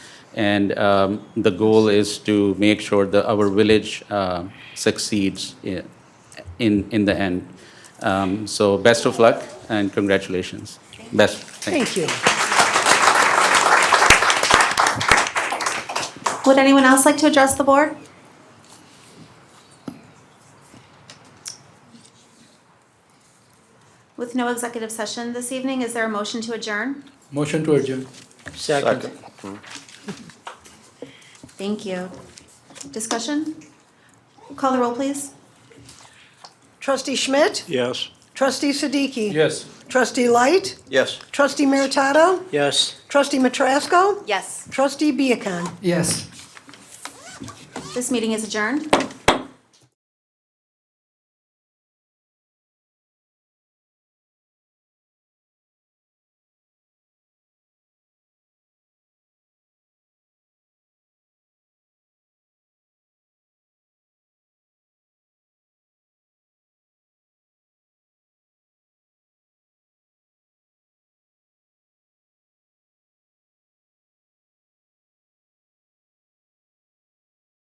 And um, the goal is to make sure that our village uh, succeeds i- in, in the end. Um, So best of luck and congratulations. Best. thank you. Thank you. Would anyone else like to address the board? With no executive session this evening, is there a motion to adjourn? Motion to adjourn. Second. Thank you. Discussion? Call the roll, please. Trustee Schmidt? Yes. Trustee Siddiqui? Yes. Trustee Light? Yes. Trustee Meritato? Yes. Trustee Matrasco? Yes. Trustee Viacon? Yes. This meeting is adjourned.